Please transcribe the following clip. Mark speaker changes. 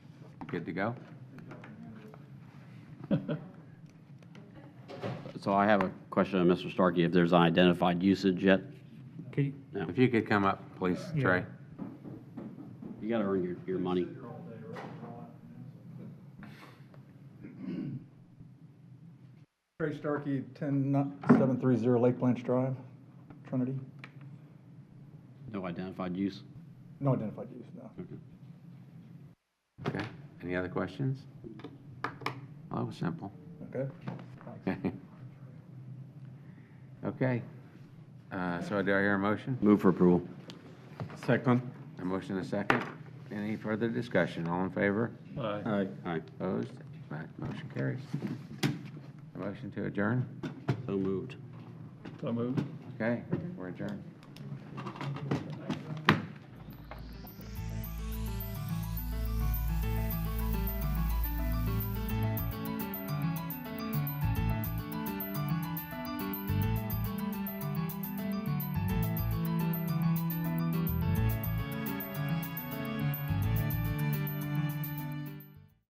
Speaker 1: good to go.
Speaker 2: So I have a question on Mr. Starkey, if there's unidentified usage yet?
Speaker 3: Can you-
Speaker 2: No.
Speaker 1: If you could come up, please,
Speaker 3: Yeah.
Speaker 1: Trey.
Speaker 2: You gotta earn your, your money.
Speaker 4: Trey Starkey, 10730 Lake Blanch Drive, Trinity.
Speaker 2: No identified use?
Speaker 4: No identified use, no.
Speaker 1: Okay, any other questions? Well, it was simple.
Speaker 4: Okay?
Speaker 1: Okay, Uh, so do I hear a motion?
Speaker 2: Move for approval.
Speaker 1: Second. A motion and a second. Any further discussion? All in favor?
Speaker 3: Aye.
Speaker 2: Aye. Aye.
Speaker 1: Opposed? That motion carries. A motion to adjourn?
Speaker 2: So moved.
Speaker 3: So moved.
Speaker 1: Okay, we're adjourned.